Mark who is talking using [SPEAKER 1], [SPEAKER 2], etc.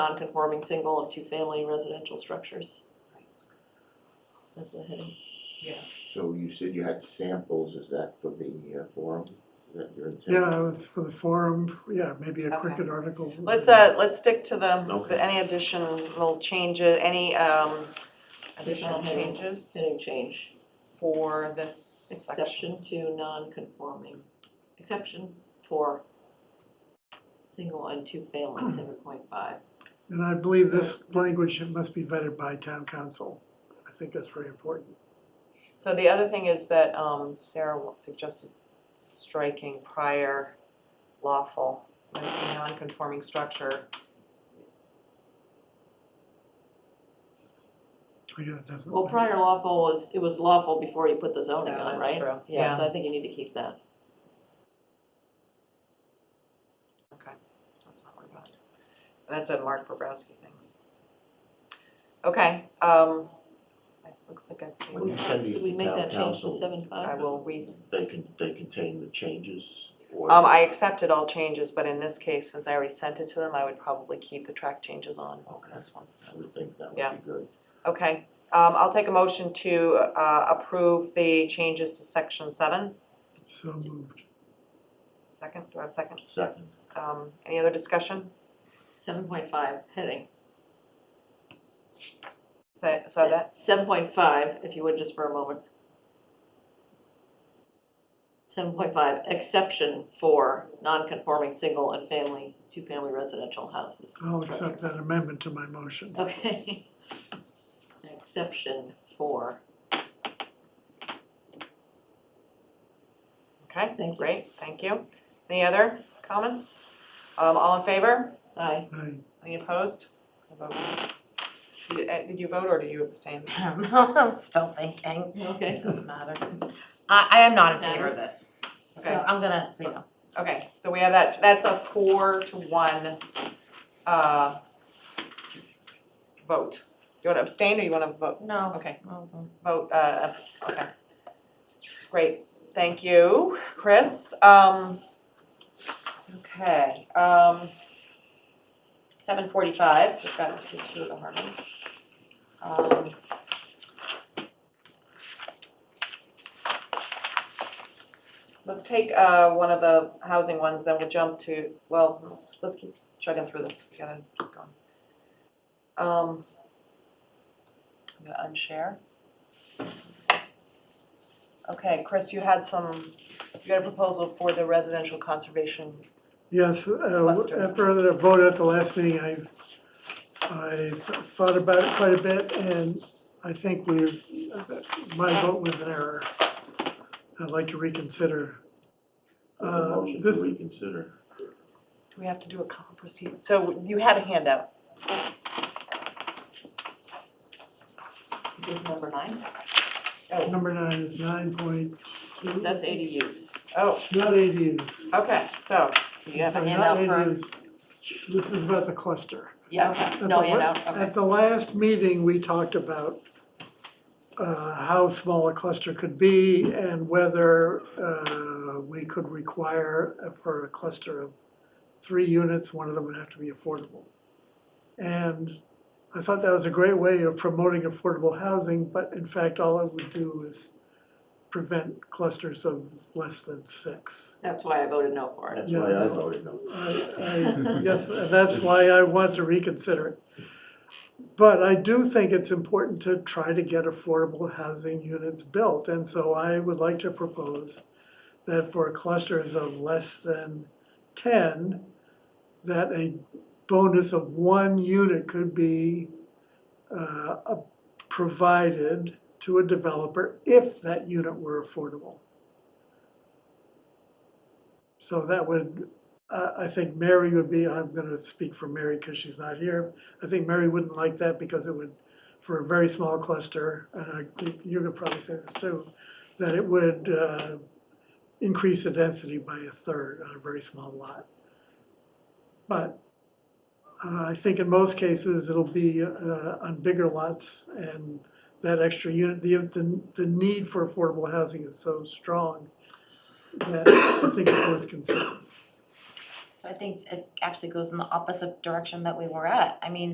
[SPEAKER 1] non-conforming single and two-family residential structures. That's the heading.
[SPEAKER 2] So you said you had samples, is that for the uh, forum? Is that your intent?
[SPEAKER 3] Yeah, it was for the forum, yeah, maybe a
[SPEAKER 4] Okay.
[SPEAKER 3] cricket article.
[SPEAKER 4] Let's, uh, let's stick to the,
[SPEAKER 2] Okay.
[SPEAKER 4] the any additional changes, any, um, additional
[SPEAKER 1] Additional heading.
[SPEAKER 4] changes
[SPEAKER 1] Heading change,
[SPEAKER 4] for this section?
[SPEAKER 1] exception to non-conforming, exception for single and two-family, seven point five.
[SPEAKER 3] And I believe
[SPEAKER 4] Uh,
[SPEAKER 3] this
[SPEAKER 4] this-
[SPEAKER 3] language must be vetted by town council. I think that's very important.
[SPEAKER 4] So the other thing is that, um, Sarah wa- suggested striking prior lawful, like, a non-conforming structure.
[SPEAKER 3] I guess Oh, it doesn't.
[SPEAKER 1] Well, prior lawful was, it was lawful before you put the zoning
[SPEAKER 4] Yeah,
[SPEAKER 1] on,
[SPEAKER 4] that's
[SPEAKER 1] right?
[SPEAKER 4] true.
[SPEAKER 1] Yeah, so
[SPEAKER 4] Yeah.
[SPEAKER 1] I think you need to keep that.
[SPEAKER 4] Okay, that's not worry about it. That's what Mark Bobrowski thinks. Okay, um, it looks like I've
[SPEAKER 2] When
[SPEAKER 4] seen,
[SPEAKER 2] you send these
[SPEAKER 1] Did we
[SPEAKER 2] to
[SPEAKER 1] make
[SPEAKER 2] town
[SPEAKER 1] that change to
[SPEAKER 2] council,
[SPEAKER 1] seven
[SPEAKER 4] I
[SPEAKER 1] five?
[SPEAKER 4] will re-
[SPEAKER 2] they can, they contain the changes or?
[SPEAKER 4] Um, I accepted all changes, but in this case, since I already sent it to them, I would probably keep the track changes on
[SPEAKER 2] Okay,
[SPEAKER 4] this one.
[SPEAKER 2] I would think that
[SPEAKER 4] Yeah.
[SPEAKER 2] would be good.
[SPEAKER 4] Okay, um, I'll take a motion to, uh, approve the changes to section seven.
[SPEAKER 3] So moved.
[SPEAKER 4] Second, do I have a second?
[SPEAKER 2] Second,
[SPEAKER 4] Um, any other discussion?
[SPEAKER 1] Seven point five, heading.
[SPEAKER 4] Say, saw that?
[SPEAKER 1] Seven point five, if you would, just for a moment. Seven point five, exception for non-conforming single and family, two-family residential houses.
[SPEAKER 3] I'll accept that amendment to my motion.
[SPEAKER 1] Okay. Exception for,
[SPEAKER 4] Okay,
[SPEAKER 1] Thank you.
[SPEAKER 4] great, thank you. Any other comments? Um, all in favor?
[SPEAKER 1] aye,
[SPEAKER 3] I,
[SPEAKER 4] Any opposed? I vote yes. Did, uh, did you vote or did you abstain?
[SPEAKER 5] I'm still thinking.
[SPEAKER 1] okay.
[SPEAKER 5] Doesn't matter. I, I am not in favor of this, so
[SPEAKER 4] Okay,
[SPEAKER 5] I'm gonna say no.
[SPEAKER 4] Okay, so we have that, that's a four to one, uh, vote. You wanna abstain or you wanna vote?
[SPEAKER 5] No.
[SPEAKER 4] Okay,
[SPEAKER 5] Mhm.
[SPEAKER 4] vote, uh, okay. Great, thank you, Chris. Um, okay, um, seven forty-five, we've got to do the harmonies. Um, Let's take uh one of the housing ones, then we'll jump to, well, let's let's keep chugging through this, we gotta keep going. Um. I'm gonna unshare. Okay, Chris, you had some, you got a proposal for the residential conservation,
[SPEAKER 3] Yes, uh,
[SPEAKER 4] Lester.
[SPEAKER 3] after the vote at the last meeting, I, I th- thought about it quite a bit, and I think we, my vote was an error. I'd like to reconsider.
[SPEAKER 2] I have a
[SPEAKER 3] Uh,
[SPEAKER 2] motion
[SPEAKER 3] this-
[SPEAKER 2] to reconsider.
[SPEAKER 4] do we have to do a con proceed? So you had a handout,
[SPEAKER 1] This is number nine,
[SPEAKER 3] Number nine is nine point two.
[SPEAKER 1] that's ADUs.
[SPEAKER 4] oh,
[SPEAKER 3] Not ADUs.
[SPEAKER 4] okay, so,
[SPEAKER 1] You have a
[SPEAKER 3] Sorry,
[SPEAKER 1] handout
[SPEAKER 3] not
[SPEAKER 1] for,
[SPEAKER 3] ADUs. This is about the cluster.
[SPEAKER 1] yeah,
[SPEAKER 3] At
[SPEAKER 1] no
[SPEAKER 3] the la-
[SPEAKER 1] handout, okay.
[SPEAKER 3] At the last meeting, we talked about uh, how small a cluster could be and whether uh, we could require uh, for a cluster of three units, one of them would have to be affordable. And I thought that was a great way of promoting affordable housing, but in fact, all it would do is prevent clusters of less than six.
[SPEAKER 1] That's why I voted no for it.
[SPEAKER 2] That's why I voted no.
[SPEAKER 3] I- I- Yes, and that's why I want to reconsider it. But I do think it's important to try to get affordable housing units built. And so I would like to propose that for clusters of less than ten, that a bonus of one unit could be uh, a- provided to a developer if that unit were affordable. So that would uh, I think Mary would be, I'm gonna speak for Mary because she's not here. I think Mary wouldn't like that because it would, for a very small cluster, and I, you're gonna probably say this too, that it would, uh, increase the density by a third on a very small lot. But, uh, I think in most cases, it'll be, uh, on bigger lots and that extra unit, the, the, the need for affordable housing is so strong that I think it's worth considering.
[SPEAKER 5] So I think it actually goes in the opposite direction that we were at. I mean,